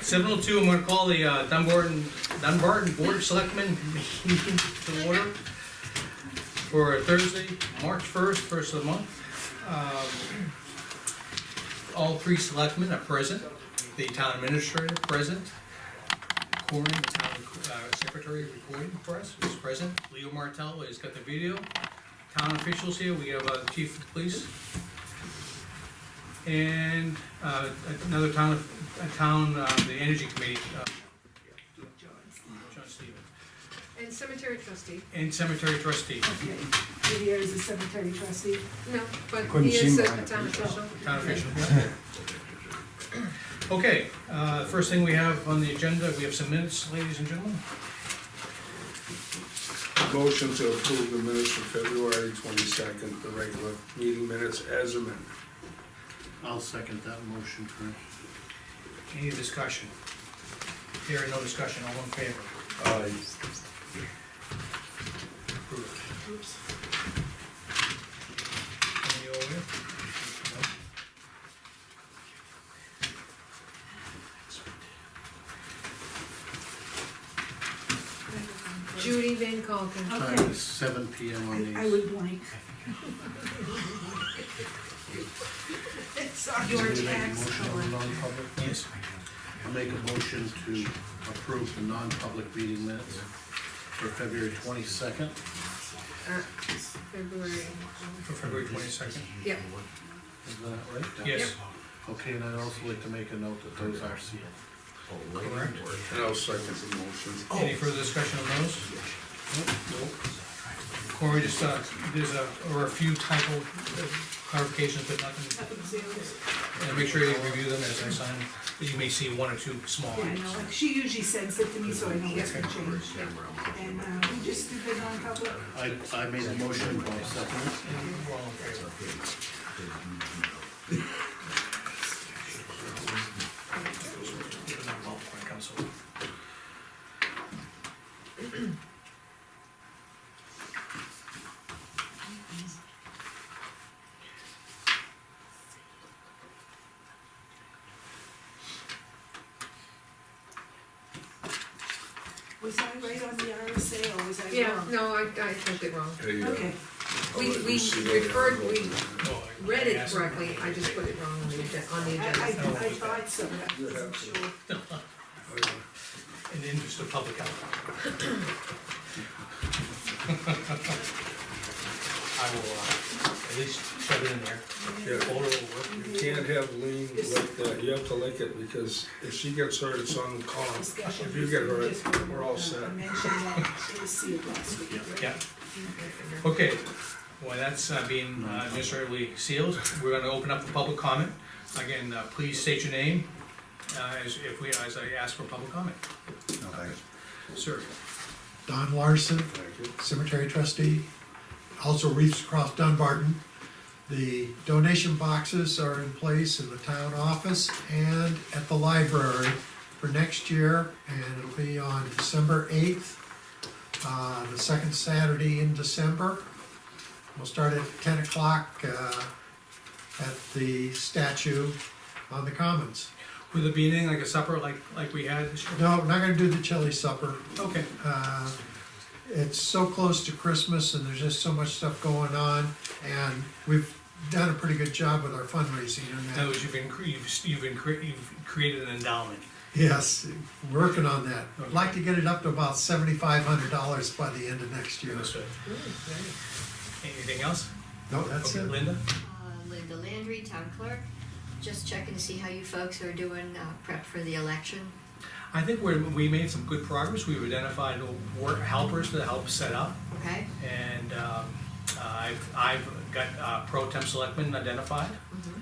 Seven oh two, I'm gonna call the uh, Dunbarton, Dunbarton Board of Selectmen meeting to order for Thursday, March first, first of the month. Um, All three selectmen are present, the town administrator present, Corin, the town uh, secretary recording for us, is present, Leo Martell has got the video, town officials here, we have uh, chief of police, and uh, another town, a town, uh, the energy committee, uh, John Stevens, And cemetery trustee, and cemetery trustee, Okay, Didier is the cemetery trustee. no, but Couldn't he is seem a right. town official. town official. yeah. Okay, uh, first thing we have on the agenda, we have some minutes, ladies and gentlemen. Motion to approve the minutes for February twenty-second, the regular meeting minutes as amended. I'll second that motion, Frank. Any discussion? Here, no discussion, all in favor? Aye. Approved. Oops. Any over here? No. Judy Van Calkin. Okay. Time is seven P M on I- I these. would blank. Your Somebody make a tax motion on the collector. non-public? Yes. I'll make a motion to approve the non-public meeting minutes for February twenty-second. Uh, February, For February twenty-second? yep, Is that right? Yes. Okay, and I'd also like to make a note that those are sealed. Correct. And I'll second the motion. Oh. Any further discussion on those? Corey, just, uh, there's a, or a few typo uh, clarifications, but nothing, and make sure you review them as I sign. You may see one or two Oh, small Yeah, I ones. know, like, she usually sends it to me, so I know what's been changed. And, uh, we just did the non-public, I, I made a motion, I'll second it. All in favor? was I right on the RSA or was I wrong? yeah, no, I, I typed it wrong. There you go. Okay, We, oh, we referred, we read it correctly, I just put it wrong on the agenda, on the I, I, agenda. I thought so, but I wasn't sure. Uh, In the interest of public health. I will, uh, at least shove it in there. Yeah. Order will work. You can't have Lean lick that, you have to lick it, because if she gets hurt, it's on Colin. Discussion. If you get Just, hurt, we're all uh, set. I mentioned that, it was sealed last week. right? Yeah, okay, well, that's uh, being uh, administratively sealed, we're gonna open up the public comment. Again, uh, please state your name, uh, as if we, as I ask for public comment, sir. Don Larson, Thank you. cemetery trustee, also Reefs Across Dunbarton. The donation boxes are in place in the town office and at the library for next year, and it'll be on December eighth, uh, the second Saturday in December. We'll start at ten o'clock, uh, at the statue on the commons. Will there be anything like a supper like, like we had this year? No, we're not gonna do the chili supper, Okay, uh, it's so close to Christmas and there's just so much stuff going on. And we've done a pretty good job with our fundraising in on other that. words, you've been, cre- you've, s- you've been, cre- you've created an endowment. Yes, working on that. I'd like to get it up to about seventy-five hundred dollars by the end of next year. Anything else? No, that's Okay, it. Linda? Uh, Linda Landry, town clerk. Just checking to see how you folks are doing uh, prep for the election. I think we're, we made some good progress, we've identified work helpers to help set up. Okay? And um, I've, I've got uh, pro temp selectmen identified, Mhm.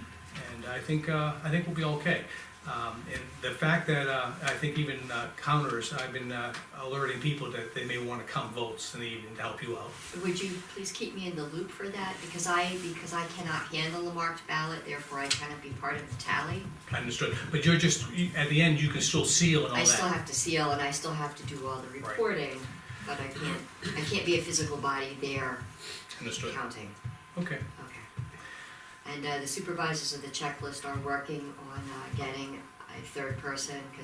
and I think, uh, I think we'll be okay. Um, And the fact that, uh, I think even uh, counters, I've been uh, alerting people that they may want to count votes in the evening to help you out. Would you please keep me in the loop for that? Because I, because I cannot handle the marked ballot, therefore I cannot be part of the tally. Understood, but you're just, you- at the end, you can still seal and all I still that. have to seal and I still have to do all the reporting, but I can't, I can't be a physical body there Understood, counting. okay. Okay. And uh, the supervisors of the checklist are working on uh, getting a third person, 'cause